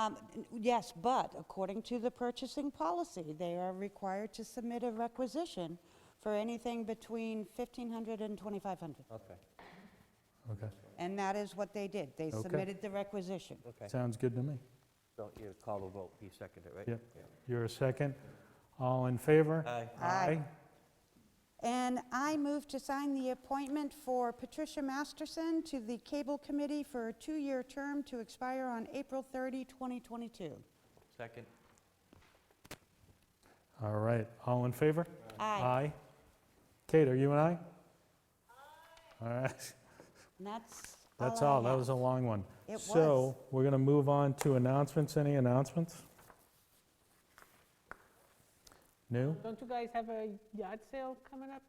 Um, Yes, but according to the purchasing policy, they are required to submit a requisition for anything between 1,500 and 2,500. Okay, Okay, And that is what they did. They Okay. submitted the requisition. okay. sounds good to me. So you call the vote, you second it, right? Yep. Yeah. You're a second. All in favor? Aye. Aye. And I move to sign the appointment for Patricia Masterson to the Cable Committee for a two-year term to expire on April 30, 2022. Second? All right, all in favor? Uh, Aye. Kate, are you an aye? All right, And that's all that's I all, that have. was a long one. It was. So, we're going to move on to announcements, any announcements? New? Don't you guys have a yard sale coming up?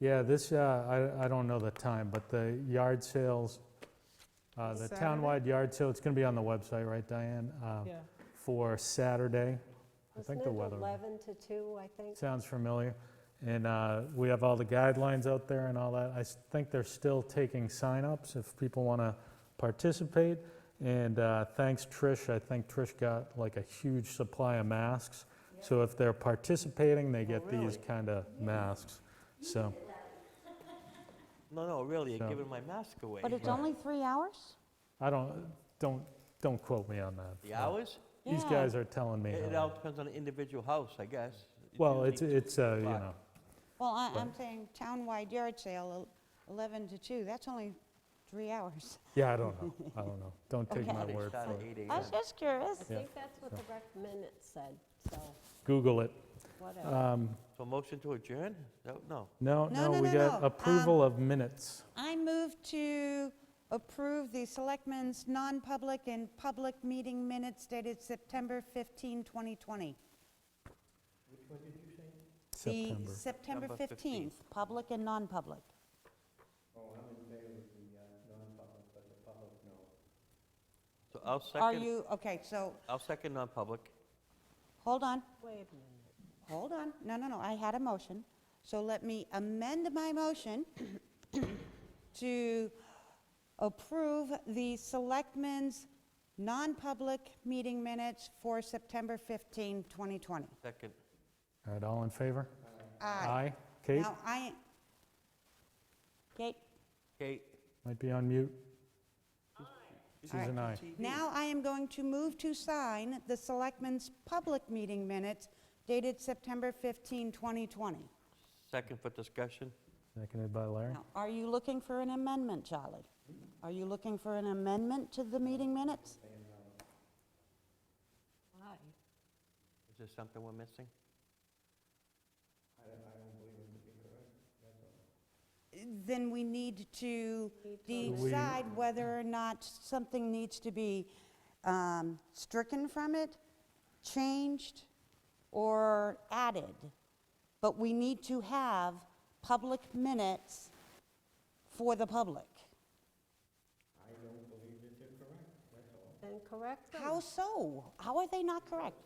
Yeah, this, uh, I I don't know the time, but the yard sales, uh, the This Saturday? townwide yard sale, it's going to be on the website, right, Diane? Uh, Yeah. For Saturday. I Wasn't think it the weather. 11 to 2, I think? Sounds familiar. And uh, we have all the guidelines out there and all that. I s- think they're still taking sign-ups if people want to participate. And uh, thanks, Trish. I think Trish got like a huge supply of masks. So if they're participating, they Oh, get these kind of masks. So, No, no, really, So- you're giving my mask away. But it's only three hours? I don't, don't, don't quote me on that. The hours? These Yeah. guys are telling me. It it how- all depends on the individual house, I guess. It's Well, it's, usually it's, uh, you o'clock. know, Well, I- But- I'm saying townwide yard sale, el- 11 to 2, that's only three hours. yeah, I don't know. I don't know. Don't take Okay. my They word start for at it. 8 I a.m. was just curious. I think that's what the rec minutes said, so Google it. whatever. Um, So motion to adjourn? No, No, No, No, no, no, we no, got no. Um, approval of minutes. I move to approve the Selectmen's non-public and public meeting minutes dated September 15, 2020. September. The September September 15th, 15th. public and non-public. so I'll Are second, you, okay, so, I'll second non-public. hold on, Wait a minute. hold on. No, no, no, I had a motion. So let me amend my motion to approve the Selectmen's non-public meeting minutes for September 15, 2020. Second, All right, all in favor? Aye. Kate, Now, I, Kate, Kate? might be on mute. She's Aye. an aye. now I am going to move to sign the Selectmen's public meeting minutes dated September 15, 2020. Second for discussion? Seconded by Larry. Now, are you looking for an amendment, Charlie? Are you looking for an amendment to the meeting minutes? Why? Is there something we're missing? Then we need to amend. We- decide whether or not something needs to be um, stricken from it, changed, or added. But we need to have public minutes for the public. Then correct them. How so? How are they not correct?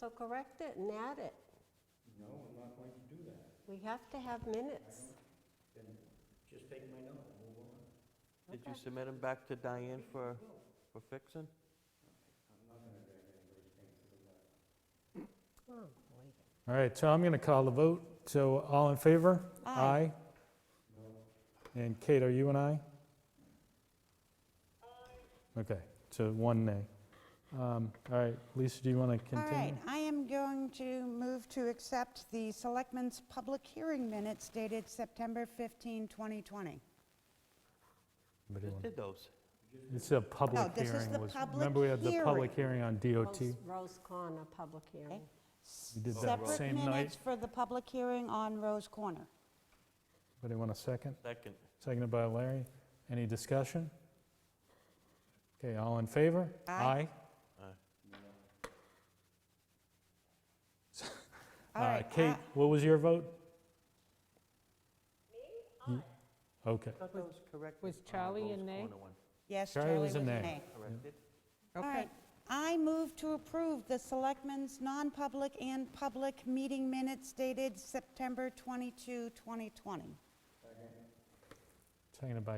So correct it and add it. No, I'm not going to do that. We have to have minutes. Did you submit them back to Diane for, for fixing? Oh, wait. All right, so I'm going to call the vote. So all in favor? Aye. And Kate, are you an aye? Okay, so one nay. Um, All right, Lisa, do you want to All right, continue? I am going to move to accept the Selectmen's public hearing minutes dated September 15, 2020. Anybody Just want- did those. It's a public Oh, this is hearing. the was- public Remember, we had the public hearing on DOT? Rose- Rose Corner Public Hearing. We did that Separate same night. minutes for the public hearing on Rose Corner. Anybody want a second? Second. Seconded by Larry. Any discussion? Okay, all in favor? Aye. Aye. All Uh, right, Kate, I- what was your vote? Me? Okay. I thought that was corrected. was on the Charlie Rose a nay? Corner one. Yes, Charlie Charlie was was a an nay. nay. Corrected? All right, I move to approve the Selectmen's non-public and public meeting minutes dated September 22, 2020. Seconded by